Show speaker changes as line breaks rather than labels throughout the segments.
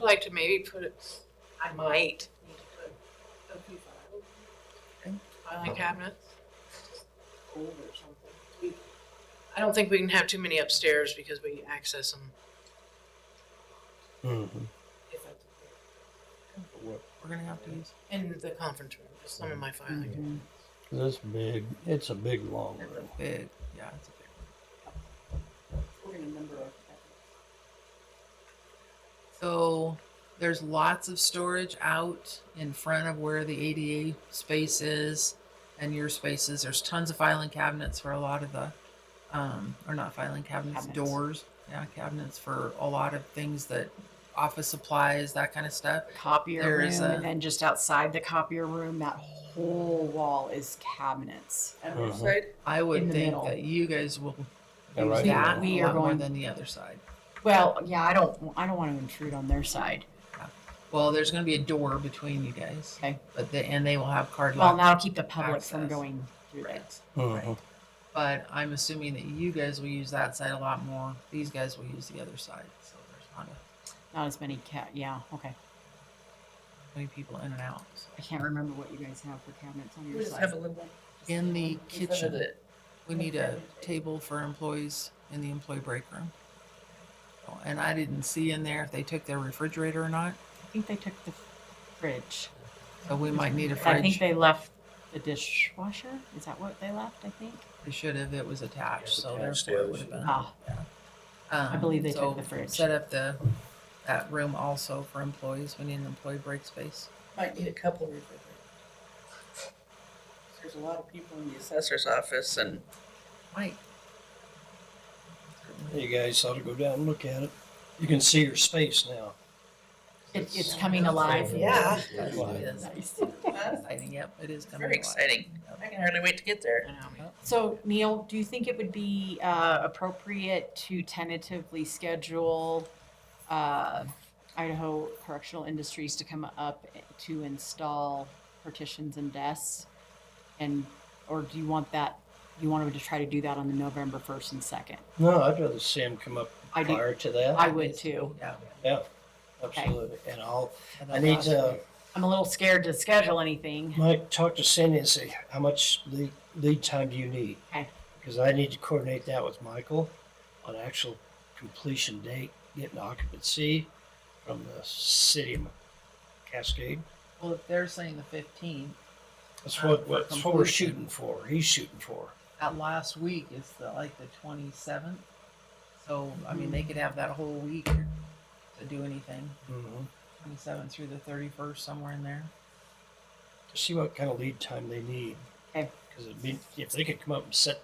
like to maybe put it, I might need to put a few files.
Okay.
Filing cabinets. Old or something. We- I don't think we can have too many upstairs because we access them.
Mm-hmm.
if that's okay.
What we're gonna have to use.
In the conference room, just some of my filing. cabinets.
This big, it's a big long
It's a
room.
big, yeah, it's a big one.
We're gonna number our cabinets.
So there's lots of storage out in front of where the ADA space is and your spaces. There's tons of filing cabinets for a lot of the, um, or not filing cabinets,
Cabinets.
doors. Yeah, cabinets for a lot of things that office supplies, that kind of stuff.
copier
There
room,
is a-
and then just outside the copier room, that whole wall is cabinets.
On
Mhm.
Mm. Uh-huh.
which side?
I would
In the
think
middle.
that you guys will
Yeah,
use
right
that
now. We
a
are
lot more
going-
than the other side.
Well, yeah, I don't, I don't want to intrude on their side.
Well, there's going to be a door between you guys.
Okay.
But the, and they will have card
Well,
lock.
that'll keep the public from
Access.
going through there.
Right.
Mhm.
But I'm assuming that you guys will use that side a lot more. These guys will use the other side. So there's not a,
Not as many cat. Yeah, okay.
many people in and out. So.
I can't remember what you guys have for cabinets on your side.
little one.
In the
In front of
kitchen,
it.
we need a table for employees in the employee break room. Oh, And I didn't see in there if they took their refrigerator or not.
I think they took the fridge.
So we might need a
I think
fridge.
they left the dishwasher. Is that what they left? I think.
They should have. It was attached, so
attached,
therefore
yeah.
it would have been.
Ah, I believe they took the
fridge.
fridge.
Set up the, that room also for employees. We need an employee break space.
Might need a couple refrigerators. There's a lot of people in the assessor's office and
Mike?
You guys ought to go down and look at it. You can see your space now.
it, it's coming alive.
yeah,
Yes, it is.
Nice.
that's
Exciting, yep, it is coming.
very
alive.
exciting. I can hardly wait to get there.
I know. So Neil, do you think it would be uh, appropriate to tentatively schedule uh, Idaho Correctional Industries to come up to install partitions and desks? And, or do you want that, you want them to try to do that on the November 1st and 2nd?
No, I'd rather see him come up
I do-
prior to that.
I would too.
Yeah.
Yeah, absolutely. And I'll,
And
I
then
need
last
to,
I'm a little scared to schedule anything.
Mike, talk to Cindy and say, how much lead, lead time do you need?
Okay.
Because I need to coordinate that with Michael on actual completion date, getting occupancy from the city of Cascade.
week- Well, if they're saying the fifteenth,
That's
Um,
what,
for
that's what we're
completion.
shooting for, he's shooting for.
that last week is the, like the twenty-seventh. So, I mean,
Hmm.
they could have that whole week to do anything,
Mm-hmm.
twenty-seventh through the thirty-first, somewhere in there.
to see what kind of lead time they need.
Okay.
Because it'd be, if they could come up and set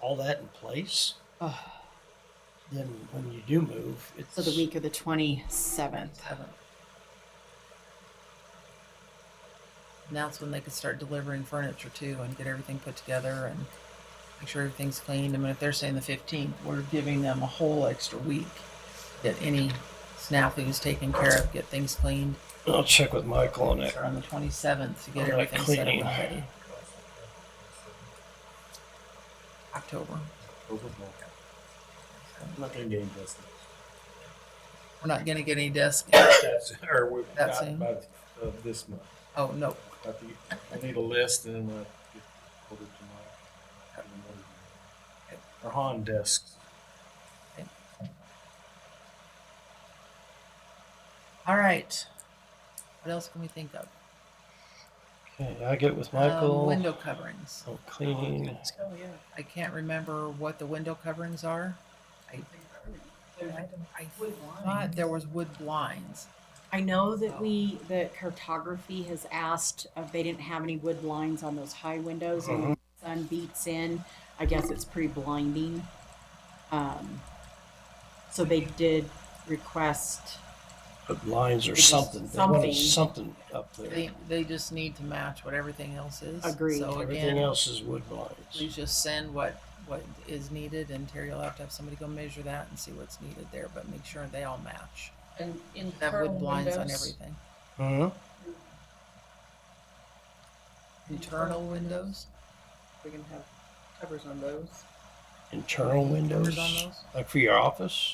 all that in place,
Ugh.
then when you do move, it's.
So the week of the 27th.
Seventh. And that's when they could start delivering furniture too and get everything put together and make sure everything's cleaned. I mean, if they're saying the fifteenth, we're giving them a whole extra week. Get any snafus taken care of, get things cleaned.
I'll check with Michael on that.
Start on the twenty-seventh to get
All right,
everything set up and
cleaning.
ready. October.
I'm not gonna get any dust.
We're not gonna get any desk.
That's, or we've
That's
got
it.
about, uh, this month.
Oh, no.
I think, I need a list and then we'll get hold of tomorrow. Or Han desks.
All right. What else can we think of?
Okay, I get with
Um,
Michael.
Window coverings.
I'll clean.
Oh, yeah.
I can't remember what the window coverings are. I, I thought there was wood blinds.
I know
So-
that we, the cartography has asked if they didn't have any wood lines on those high windows and
Uh-huh.
when the sun beats in. I guess it's pretty blinding. Um, so they did request,
Put lines or
Just
something. They wanted
something.
something up there.
They, they just need to match what everything else is.
Agreed.
So
Everything
again,
else is wood blinds.
please just send what, what is needed and Terry will have to have somebody go measure that and see what's needed there, but make sure they all match.
And in
Have
Pearl
wood blinds on
windows,
everything.
hmm
Internal windows,
We can have covers on those.
Internal
covers
windows,
on those.
like for your office.